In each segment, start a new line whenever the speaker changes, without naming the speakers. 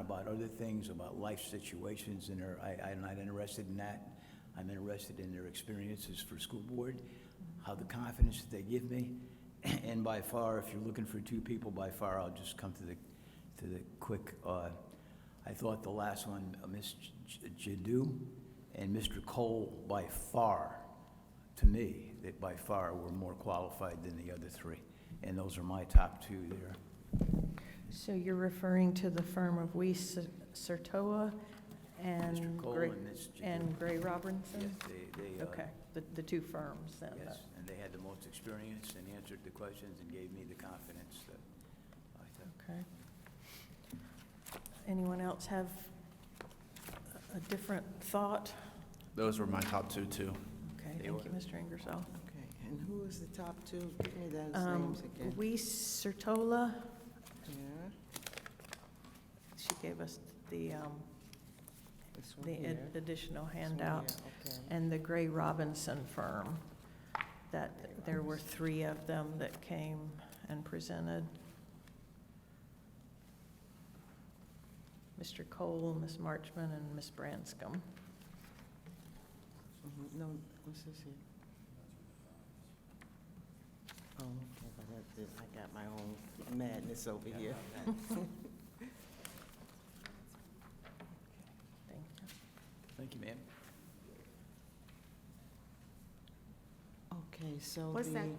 about other things, about life situations, and are- I, I'm not interested in that. I'm interested in their experiences for school board, how the confidence that they give me. And by far, if you're looking for two people, by far, I'll just come to the, to the quick, uh, I thought the last one, uh, Ms. J- Jadu and Mr. Cole, by far, to me, that by far were more qualified than the other three. And those are my top two there.
So you're referring to the firm of Weiss Sertoa and
Mr. Cole
Gray,
and Ms. Jadu.
and Gray
Yes,
Robinson?
they, they, uh,
Okay, the, the two firms then.
yes, and they had the most experience and answered the questions and gave me the confidence that I thought.
Okay. Anyone else have a- a different thought?
Those were my top two, too.
Okay,
They
thank you,
were.
Mr. Ingersoll.
Okay, and who is the top two? Give me those
Um,
names again.
Weiss Sertola,
Yeah,
she gave us the, um,
this one
the
here.
ad- additional
this one
handout.
here, okay.
and the Gray Robinson firm, that there were three of them that came and presented. Mr. Cole, Ms. Marchman, and Ms. Branscombe.
Mhm, No, what's this here? Oh, okay, but that's it. I got my own madness over here.
Thank you.
Thank you, ma'am.
Okay, so
What's that?
the,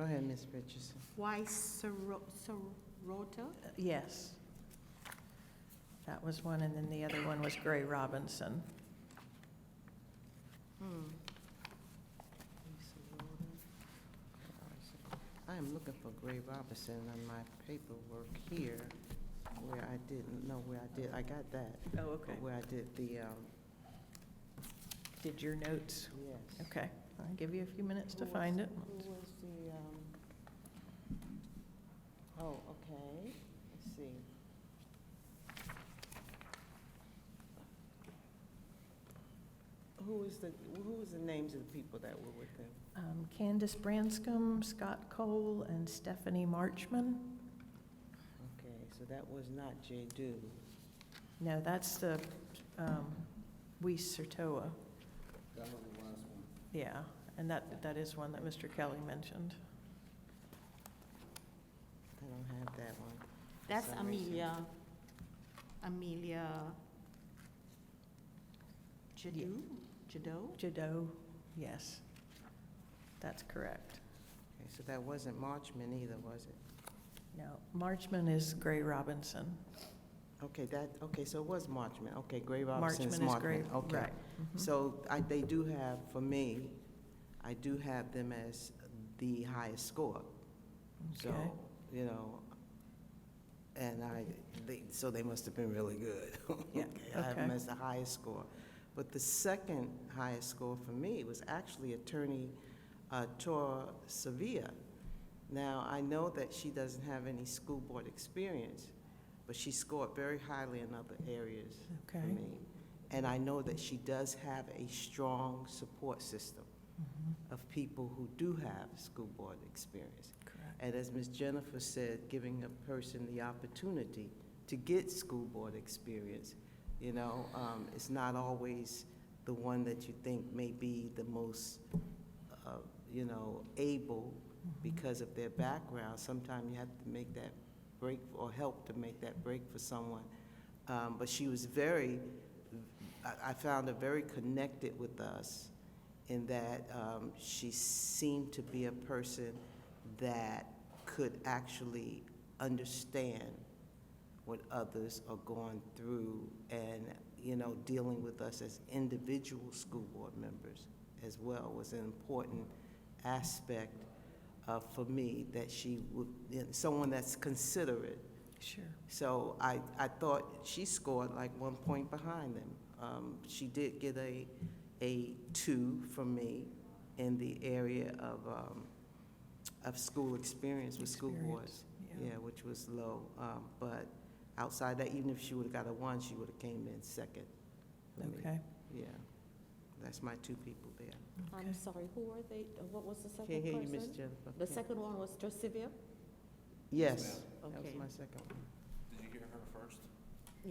go ahead, Ms. Richardson.
Why Soro- Sorota?
Uh, Yes. That was one, and then the other one was Gray Robinson.
Hmm.
I am looking for Gray Robinson on my paperwork here, where I didn't, know where I did, I got that,
Oh,
but where I did the, um,
Did your notes?
yes.
Okay, I'll give you a few minutes to
Who
find
was-
it.
Who was the, um, oh, okay, let's see. Who was the, who was the names of the people that were with them?
Um, Candace Branscombe, Scott Cole, and Stephanie Marchman.
Okay, so that was not J. Do.
No, that's the um, Weiss Sertoa.
That was the last one.
Yeah, and that, that is one that Mr. Kelly mentioned.
I don't have that one.
That's
some reason.
Amelia, Amelia Jadot, Jadot?
Jado, yes, that's correct.
Okay, so that wasn't Marchman either, was it?
No, Marchman is Gray Robinson.
Okay, that, okay, so it was Marchman, okay, Gray
Marchman
Robinson's
is
Marchman.
Gray,
Okay.
right. mhm.
So I, they do have, for me, I do have them as the highest score. So,
Okay.
you know, and I, they, so they must have been really good.
Yeah,
I have them
okay.
as the highest score. But the second highest score for me was actually Attorney uh, Tora Sevilla. Now, I know that she doesn't have any school board experience, but she scored very highly in other areas for
Mm-hmm. Okay.
me. And I know that she does have a strong support system
Mhm,
of people who do have school board experience.
Correct.
And as Ms. Jennifer said, giving a person the opportunity to get school board experience, you know, um, it's not always the one that you think may be the most, uh, you know, able
Mhm.
because of their background. Sometimes you have to make that break or help to make that break for someone. Um, but she was very, I, I found her very connected with us in that um, she seemed to be a person that could actually understand what others are going through and, you know, dealing with us as individual school board members as well was an important aspect uh, for me that she would, someone that's considerate
Sure,
so I, I thought she scored like one point behind them. Um, she did get a, a two from me in the area of, um, of school experience with school boards.
yeah.
Yeah, which was low. Um, but outside that, even if she would've got a one, she would've came in second for me.
Okay,
Yeah. That's my two people there.
Okay.
I'm sorry, who were they, Uh, what was the
Can't
second
hear you, Miss
person?
Jennifer.
The second one was Josivia?
Yes, that was
Okay.
my second one.